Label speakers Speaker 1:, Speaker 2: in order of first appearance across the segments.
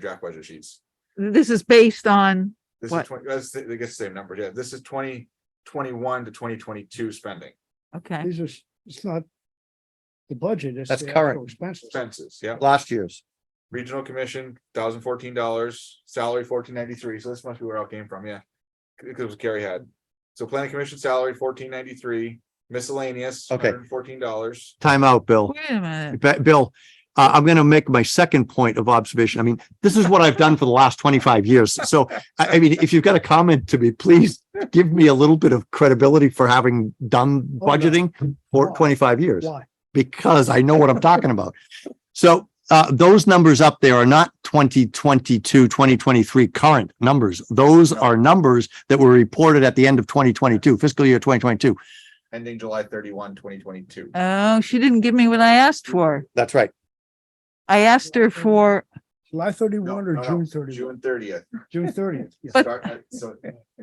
Speaker 1: draft budget sheets.
Speaker 2: This is based on,
Speaker 1: This is
Speaker 2: What?
Speaker 1: twenty, that's, the- I guess the same number, yeah, this is twenty twenty-one to twenty twenty-two spending,
Speaker 2: okay,
Speaker 3: These are, s- it's not the budget, it's.
Speaker 4: That's
Speaker 3: the
Speaker 4: current.
Speaker 3: actual Expenses.
Speaker 1: expenses, yeah.
Speaker 4: last year's.
Speaker 1: Regional commission, thousand fourteen dollars, salary fourteen ninety-three, so this must be where it all came from, yeah. Because it was Carrie had. So planning commission salary fourteen ninety-three, miscellaneous.
Speaker 4: Okay.
Speaker 1: Fourteen dollars.
Speaker 4: Time out, Bill.
Speaker 2: wait a minute,
Speaker 4: Ba- Bill, uh, I'm going to make my second point of observation. I mean, this is what I've done for the last 25 years. So, I, I mean, if you've got a comment to me, please give me a little bit of credibility for having done
Speaker 3: Oh, no.
Speaker 4: budgeting for
Speaker 3: Why?
Speaker 4: 25 years
Speaker 3: Why?
Speaker 4: because I know what I'm talking about. So uh, those numbers up there are not 2022, 2023 current numbers. Those are numbers that were reported at the end of 2022, fiscal year 2022.
Speaker 1: Ending July 31, 2022.
Speaker 2: oh, she didn't give me what I asked for.
Speaker 4: That's right.
Speaker 2: I asked her for,
Speaker 3: July
Speaker 1: No,
Speaker 3: thirty-one or
Speaker 1: no, no,
Speaker 3: June thirty-one?
Speaker 1: June thirtieth.
Speaker 3: June thirtieth. Yeah.
Speaker 2: But-
Speaker 1: Start at- So,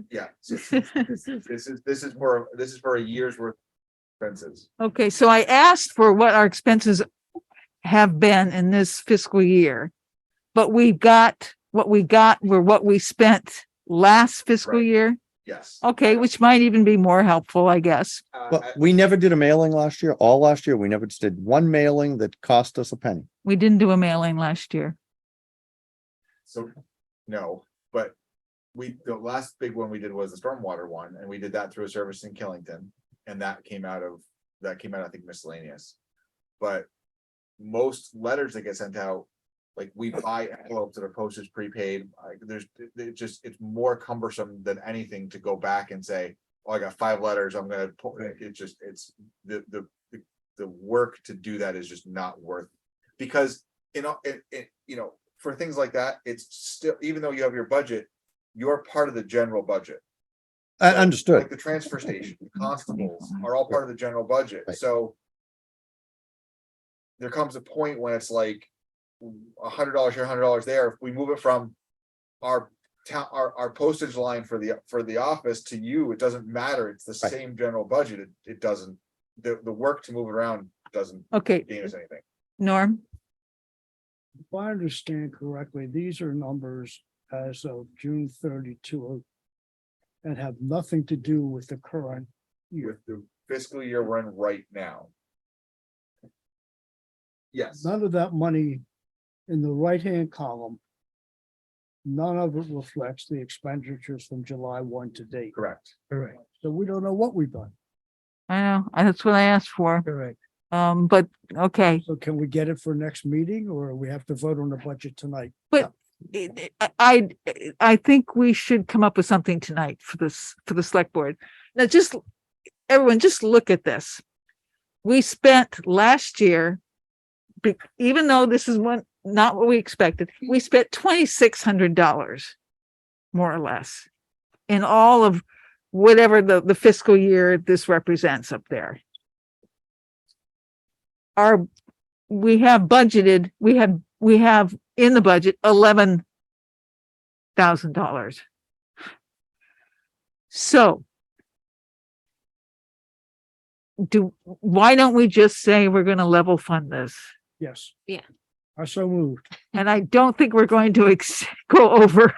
Speaker 1: yeah, so this is, this is for, this is for a year's worth of expenses.
Speaker 2: okay, so I asked for what our expenses have been in this fiscal year. But we got, what we got were what we spent last fiscal
Speaker 1: Right.
Speaker 2: year.
Speaker 1: Yes.
Speaker 2: Okay, which might even be more helpful, I guess.
Speaker 1: Uh,
Speaker 4: Well,
Speaker 1: I-
Speaker 4: we never did a mailing last year, all last year. We never just did one mailing that cost us a penny.
Speaker 2: We didn't do a mailing last year.
Speaker 1: So, no, but we, the last big one we did was the stormwater one, and we did that through a service in Killington. And that came out of, that came out, I think miscellaneous. But most letters that get sent out, like we buy envelopes that are postage prepaid, like there's, it- it just, it's more cumbersome than anything to go back and say, oh, I got five letters, I'm gonna, po-" it just, it's, the, the, the- the work to do that is just not worth. Because you know, it, it, you know, for things like that, it's still, even though you have your budget, you're part of the general budget.
Speaker 4: I
Speaker 1: So,
Speaker 4: understood.
Speaker 1: Like the transfer station, the constables are all part of the general budget,
Speaker 4: Right.
Speaker 1: so. There comes a point when it's like, a hundred dollars here, a hundred dollars there, if we move it from. Our town, our, our postage line for the, for the office to you, it doesn't matter, it's the
Speaker 4: Right.
Speaker 1: same general budget, it, it doesn't. The, the work to move it around doesn't
Speaker 2: Okay,
Speaker 1: gain us anything.
Speaker 2: Norm,
Speaker 3: If I understand correctly, these are numbers as of June thirty-two and have nothing to do with the current year.
Speaker 1: with the fiscal year we're in right now. Yes,
Speaker 3: None of that money in the right-hand column, none of it reflects the expenditures from July one to date.
Speaker 1: correct.
Speaker 3: Correct. So we don't know what we've done.
Speaker 2: I know, I- that's what I asked for.
Speaker 3: Correct.
Speaker 2: Um, but, okay.
Speaker 3: So can we get it for next meeting or we have to vote on the budget tonight?
Speaker 2: I, I, I think we should come up with something tonight for this, for the select board. Now, just, everyone, just look at this. We spent last year, be- even though this is one, not what we expected, we spent twenty-six hundred dollars, more or less, in all of whatever the, the fiscal year this represents up there. Our, we have budgeted, we have, we have in the budget eleven thousand dollars. So do, why don't we just say we're gonna level fund this?
Speaker 3: Yes.
Speaker 5: Yeah.
Speaker 3: I so moved.
Speaker 2: And I don't think we're going to ex- go over.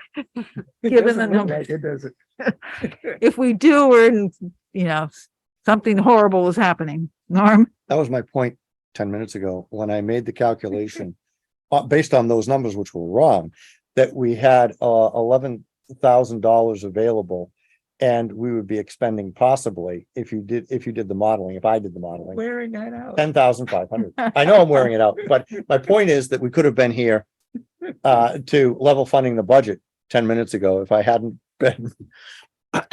Speaker 2: Given the number.
Speaker 3: It doesn't.
Speaker 2: If we do, we're in, you know, something horrible is happening. Norm,
Speaker 4: That was my point ten minutes ago when I made the calculation. Uh, based on those numbers, which were wrong, that we had uh eleven thousand dollars available. And we would be expending possibly, if you did, if you did the modeling, if I did the modeling. Wearing that out. Ten thousand five hundred. I know I'm wearing it out, but my point is that we could have been here. Uh, to level funding the budget ten minutes ago if I hadn't been.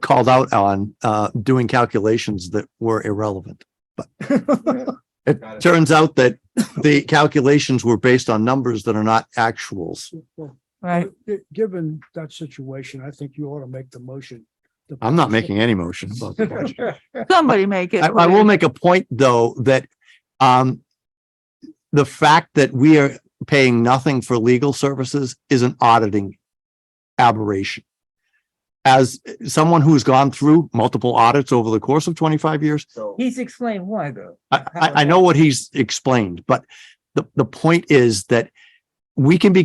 Speaker 4: Called out on uh doing calculations that were irrelevant. It
Speaker 1: Got it.
Speaker 4: turns out that the calculations were based on numbers that are not actuals.
Speaker 2: right?
Speaker 3: Given that situation, I think you ought to make the motion. to-
Speaker 4: I'm not making any motion about the budget.
Speaker 2: Somebody make it.
Speaker 4: I, I will
Speaker 2: please.
Speaker 4: make a point, though, that, um, the fact that we are paying nothing for legal services is an auditing aberration. As someone who's gone through multiple audits over the course of twenty-five years,
Speaker 1: So,
Speaker 6: He's explained why though.
Speaker 4: I, I, I know what he's explained, but the, the point is that we can be